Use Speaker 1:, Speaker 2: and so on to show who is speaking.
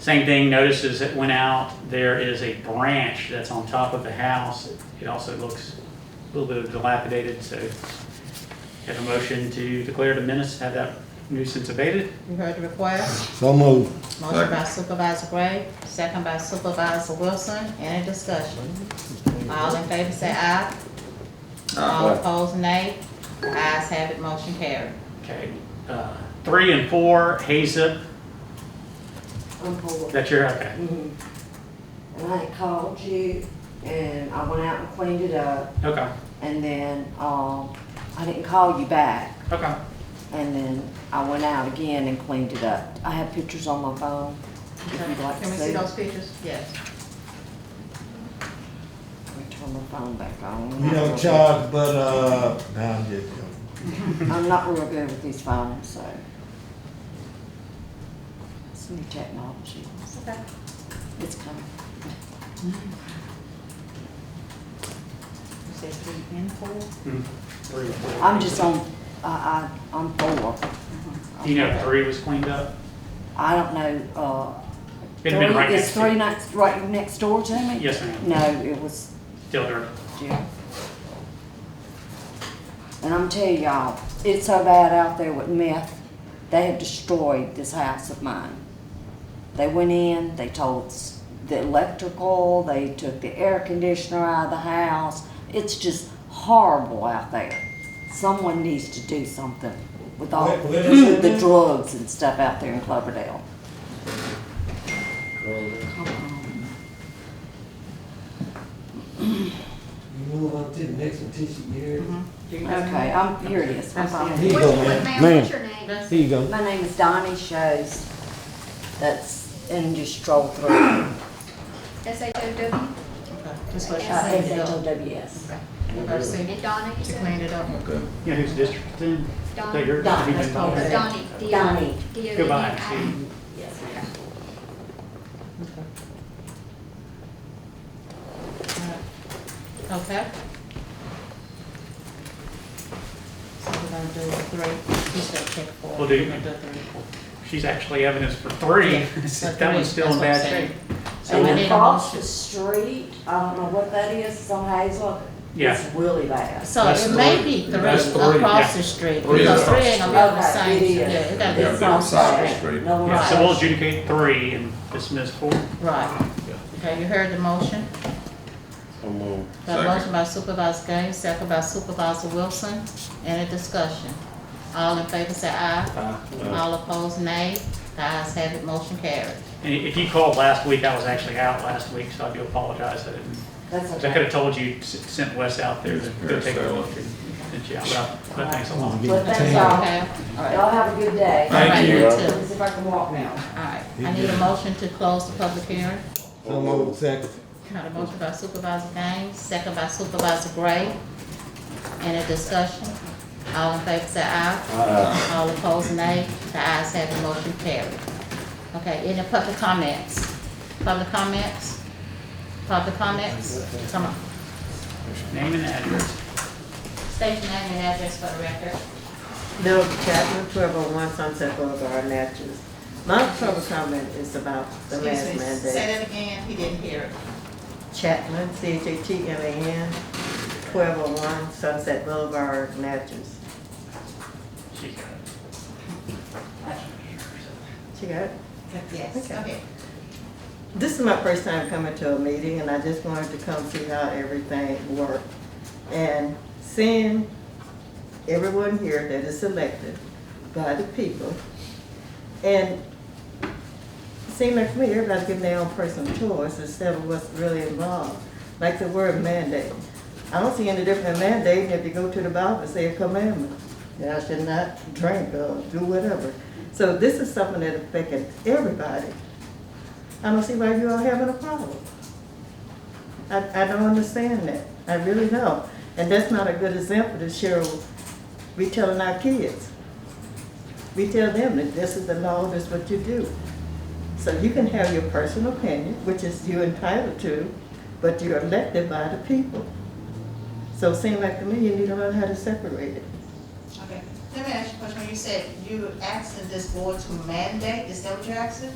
Speaker 1: Same thing, notices that went out, there is a branch that's on top of the house. It also looks a little bit dilapidated, so have a motion to declare the menace, have that nuisance abated.
Speaker 2: You heard the request.
Speaker 3: So moved.
Speaker 2: Motion by Supervisor Gray, second by Supervisor Wilson. Any discussion? All in favor say aye. All opposed, nay. The ayes have it, motion carried.
Speaker 1: Okay, uh, three and four, Hazup,
Speaker 4: I'm bored.
Speaker 1: that's your, okay.
Speaker 4: Mhm. And I called you and I went out and cleaned it up
Speaker 1: Okay,
Speaker 4: and then, um, I didn't call you back.
Speaker 1: okay.
Speaker 4: And then I went out again and cleaned it up. I have pictures on my phone. If you'd like to
Speaker 2: Can we
Speaker 4: see.
Speaker 2: see those
Speaker 4: them.
Speaker 2: pictures? Yes.
Speaker 4: Let me turn my phone back on.
Speaker 3: We don't charge, but, uh, nah, I'm just joking.
Speaker 4: I'm not real good with these phones, so. It's new technology.
Speaker 2: Okay.
Speaker 4: It's coming.
Speaker 2: You said three and four?
Speaker 1: Hmm, Three and four.
Speaker 4: I'm just on, I, I, I'm four.
Speaker 2: Uh-huh.
Speaker 1: Do you know if three was cleaned up?
Speaker 4: I don't know, uh.
Speaker 1: It'd been
Speaker 4: three-
Speaker 1: right
Speaker 4: it's
Speaker 1: next to-
Speaker 4: three nights, right next door to me?
Speaker 1: Yes, ma'am.
Speaker 4: No, it was,
Speaker 1: Still dirty?
Speaker 4: yeah. And I'm telling y'all, it's so bad out there with meth, they have destroyed this house of mine. They went in, they told s- the electrical, they took the air conditioner out of the house. It's just horrible out there. Someone needs to do something with all
Speaker 3: Where- where is it
Speaker 4: the
Speaker 3: at?
Speaker 4: drugs and stuff out there in Cloverdale.
Speaker 3: You
Speaker 4: Come on.
Speaker 3: move on to the next one till she get here.
Speaker 4: Okay, I'm, here it is. I'm fine.
Speaker 3: Here you go, man.
Speaker 5: Ma'am, what's your name?
Speaker 2: That's
Speaker 3: Here you go.
Speaker 4: My name is Donnie Shows. That's in your stroll through.
Speaker 5: S H O W,
Speaker 2: Okay. Just let
Speaker 4: Uh,
Speaker 2: us see it up.
Speaker 4: S-H-O-W-S.
Speaker 2: Let her see
Speaker 5: and Donna, you
Speaker 2: to
Speaker 5: said?
Speaker 2: clean it up.
Speaker 1: You know whose district it's in?
Speaker 5: Donna.
Speaker 1: That yours?
Speaker 4: Donna,
Speaker 1: You
Speaker 2: that's
Speaker 1: can-
Speaker 2: called it.
Speaker 5: Donnie. D O N-
Speaker 4: Donnie.
Speaker 5: D O N-
Speaker 1: Goodbye,
Speaker 5: I- E.
Speaker 1: see.
Speaker 4: Yes,
Speaker 5: Okay.
Speaker 2: Uh, Okay. So we're gonna do three, you said pick four.
Speaker 1: We'll do-
Speaker 2: We're gonna three.
Speaker 1: She's actually evidence for three.
Speaker 2: Yeah, for
Speaker 1: That one's
Speaker 2: three,
Speaker 1: still in
Speaker 2: that's what I'm
Speaker 1: bad
Speaker 2: saying.
Speaker 1: shape.
Speaker 2: So we
Speaker 4: And
Speaker 2: need a
Speaker 4: across
Speaker 2: motion.
Speaker 4: the street, I don't know what that is, it's on Hazel.
Speaker 1: Yeah.
Speaker 4: It's really bad.
Speaker 2: So
Speaker 6: That's
Speaker 2: it may
Speaker 6: three.
Speaker 2: be three
Speaker 6: That's three,
Speaker 2: across
Speaker 1: yeah.
Speaker 2: the street,
Speaker 6: Three
Speaker 2: because
Speaker 6: across
Speaker 2: three
Speaker 6: the
Speaker 2: ain't gonna be on the
Speaker 4: Okay,
Speaker 2: same,
Speaker 4: it is.
Speaker 2: yeah, it gotta
Speaker 6: Yeah,
Speaker 2: be
Speaker 6: they're
Speaker 2: across the
Speaker 6: side
Speaker 2: street.
Speaker 6: street.
Speaker 4: No
Speaker 1: Yeah, So we'll
Speaker 4: right.
Speaker 1: adjudicate three and dismiss four.
Speaker 2: Right. Okay, you heard the motion? Got a motion by Supervisor Gaines, second by Supervisor Wilson. Any discussion? All in favor say aye. All opposed, nay. The ayes have it, motion carried.
Speaker 1: And if you called last week, I was actually out last week, so I do apologize. I didn't-
Speaker 4: That's
Speaker 1: 'cause I could
Speaker 4: okay.
Speaker 1: have told you, s- sent Wes out there to go take a look and sent you out, but- but thanks a lot.
Speaker 4: But that's all.
Speaker 2: Okay? All right.
Speaker 4: Y'all have a good day.
Speaker 2: All right,
Speaker 6: Thank you.
Speaker 2: too.
Speaker 4: Let me see if I can walk now.
Speaker 2: All right, I need a motion to close the public hearing.
Speaker 3: So moved, second.
Speaker 2: Got a motion by Supervisor Gaines, second by Supervisor Gray. Any discussion? All in favor say aye. All opposed, nay. The ayes have it, motion carried. Okay, any public comments? Public comments? Public comments? Come on.
Speaker 1: Name and address.
Speaker 2: State your name and address for the record.
Speaker 7: Bill Chapman, twelve oh one Sunset Boulevard, Natchez. My trouble comment is about the last mandate.
Speaker 2: that again, he didn't hear it.
Speaker 7: Chapman, C H A T M A N, twelve oh one Sunset Boulevard, Natchez.
Speaker 1: She got it.
Speaker 7: She got it?
Speaker 2: Yes,
Speaker 7: Okay. This is my first time coming to a meeting and I just wanted to come see how everything worked. And seeing everyone here that is elected by the people. And it seemed like to me, everybody's giving their own personal choice instead of what's really involved. Like the word mandate. I don't see any different in mandating if you go to the Bible and say a commandment that I should not drink or do whatever. So this is something that affected everybody. I don't see why you all having a problem. I, I don't understand that. I really don't. And that's not a good example to share, with- we telling our kids. We tell them that this is the law, this is what you do. So you can have your personal opinion, which is you're entitled to, but you're elected by the people. So it seems like to me, you need to learn how to separate it.
Speaker 8: Okay, let me ask you a question, when you said you were asking this board to mandate, is that what you're asking?